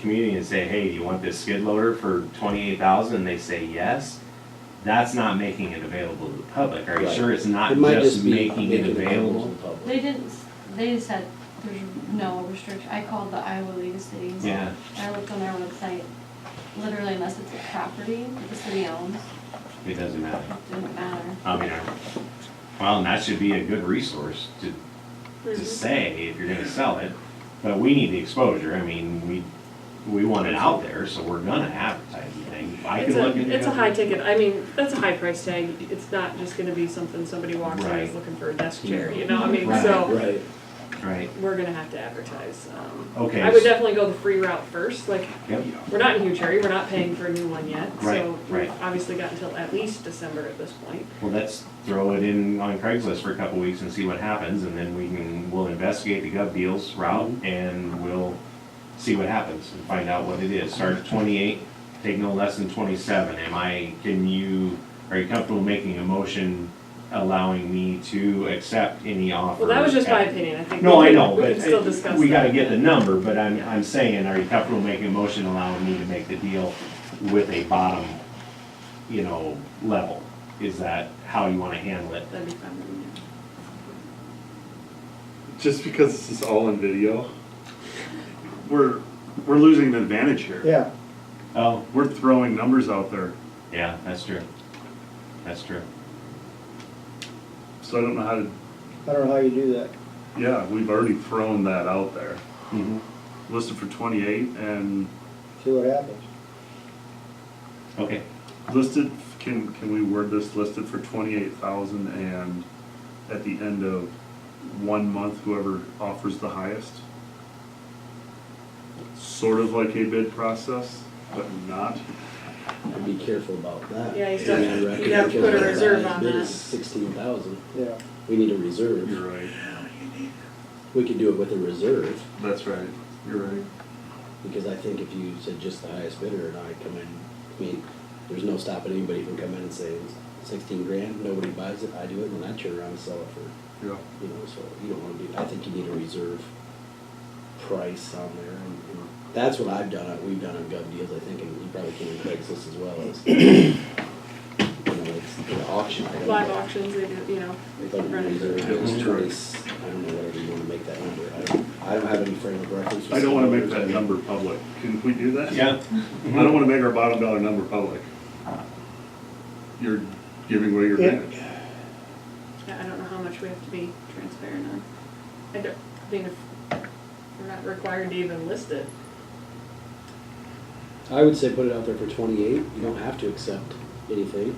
community and say, hey, you want this skid loader for twenty-eight thousand, and they say yes, that's not making it available to the public, are you Right. sure it's not It might just be making it to available? the public. They didn't, s- they said there's no restriction. I called the Iowa League of Cities. Yeah. I looked on their website, literally unless it's a property that the city owns, It doesn't matter, it doesn't matter. I mean, I- well, and that should be a good resource to, Mm-hmm. to say if you're gonna sell it, but we need the exposure, I mean, we, we want it out there, so we're gonna advertise the thing, I can It's look into a, it. it's a high ticket, I mean, that's a high price tag, it's not just gonna be something somebody walks in and Right. is looking for a desk chair, you know, I mean, Right. so, Right, Right, we're gonna have to advertise, um. Okay. I would definitely go the free route first, like, yep, we're not in huge hurry, we're not paying for a new one yet, Right, so right. we've obviously got until at least December at this point. well, let's throw it in on Craigslist for a couple weeks and see what happens, and then we can, we'll investigate the gov deals route, and we'll see what happens, and find out what it is, start at twenty-eight, take no less than twenty-seven, am I, can you, are you comfortable making a motion allowing me to accept any offer? Well, that was just my opinion, I think. No, we I can- know, We but can still discuss it- we gotta that. get the number, but I'm, I'm saying, are you comfortable making a motion allowing me to make the deal with a bottom, you know, level? Is that how you wanna handle it? That'd be fun. wouldn't it? just because this is all in video, we're we're losing an advantage here. Yeah, Oh, We're throwing numbers out there, yeah, that's true. That's true. so I don't know how to. I don't know how you do that. Yeah, we've already thrown that out there. Mhm. Listed for 28 and See what happens. Okay, listed. Can can we word this listed for 28,000 and at the end of one month, whoever offers the highest. Sort of like a bid process, but not. I'd be careful about that. Yeah, you I still- mean, I reckon you gotta because put a the reserve highest on Bid that. is sixteen thousand, Yeah, we need a reserve, You're right. we could do it with a reserve, That's right. You're right. because I think if you said just the highest bidder, and I come in, I mean, there's no stopping anybody from coming in and saying sixteen grand, nobody buys it, I do it, and then I turn around and sell it for Yeah. you know, so you don't wanna be, I think you need a reserve price on there, and, and that's what I've done, uh, we've done on gov deals, I think, and you probably can in Craigslist as well, is, you know, it's an auction item. Live auctions, they do, you know. But run it. reserve Yeah. is twenty, I don't know, whatever you wanna make that number, I don't, I don't have any frame of reference. I don't wanna make that number public. Can we do that? yeah, I don't wanna make our bottom dollar number public. You're giving away your Yeah. advantage. I I don't know how much we have to be transparent on. I don't, I mean, if we're not required to even list it. I would say put it out there for twenty-eight, you don't have to accept anything,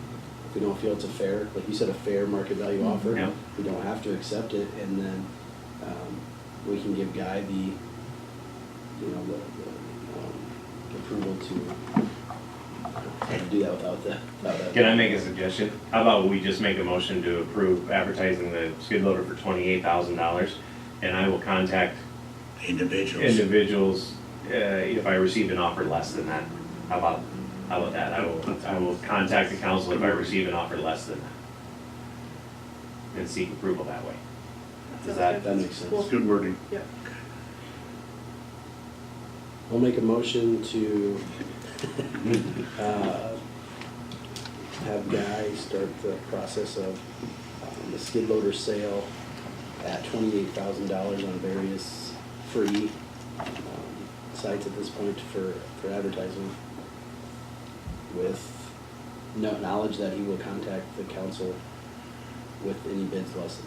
if you don't feel it's a fair, like you said, a fair market value offer. Mm-hmm. Yeah. We don't have to accept it, and then, um, we can give Guy the, you know, the, the, um, approval to do that without the, without that. can I make a suggestion? How about we just make a motion to approve advertising the skid loader for twenty-eight thousand dollars? And I will contact Individuals. individuals, uh, if I receive an offer less than that. How about, how about that? I will, I will contact the council if I receive an offer less than that. And seek approval that way. Does that- that makes sense. It's good wording. Yep. I'll make a motion to, uh, have Guy start the process of um, the skid loader sale at twenty-eight thousand dollars on various free um, sites at this point for, for advertising with no- knowledge that he will contact the council with any bids less than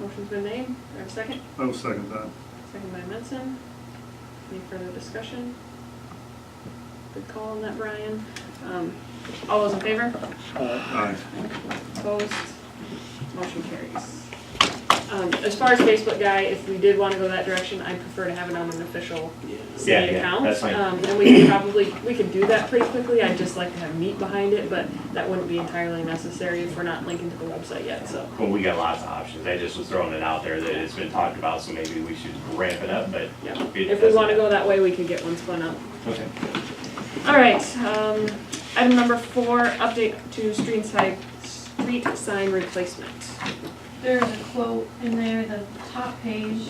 that. Motion's been made, do I have a second? I will second that. Second by Menson. Any further discussion? Good call on that, Brian. Um, all those in favor? Uh, Aye. Opposed? Motion carries. Um, as far as Facebook guy, if we did wanna go that direction, I prefer to have it on an official Yeah. Yeah, city yeah, account. that's fine. Um, and we could probably, we could do that pretty quickly, I'd just like to have meat behind it, but that wouldn't be entirely necessary if we're not linking to the website yet, so. Well, we got lots of options. I just was throwing it out there that it's been talked about, so maybe we should ramp it up, but. Yeah, it if we wanna doesn't- go that way, we could get one spun up. Okay. Alright, um, item number four, update to street side, street sign replacement. There's a quote in there, the top page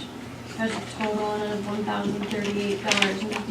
There's a total on it of one thousand thirty-eight dollars and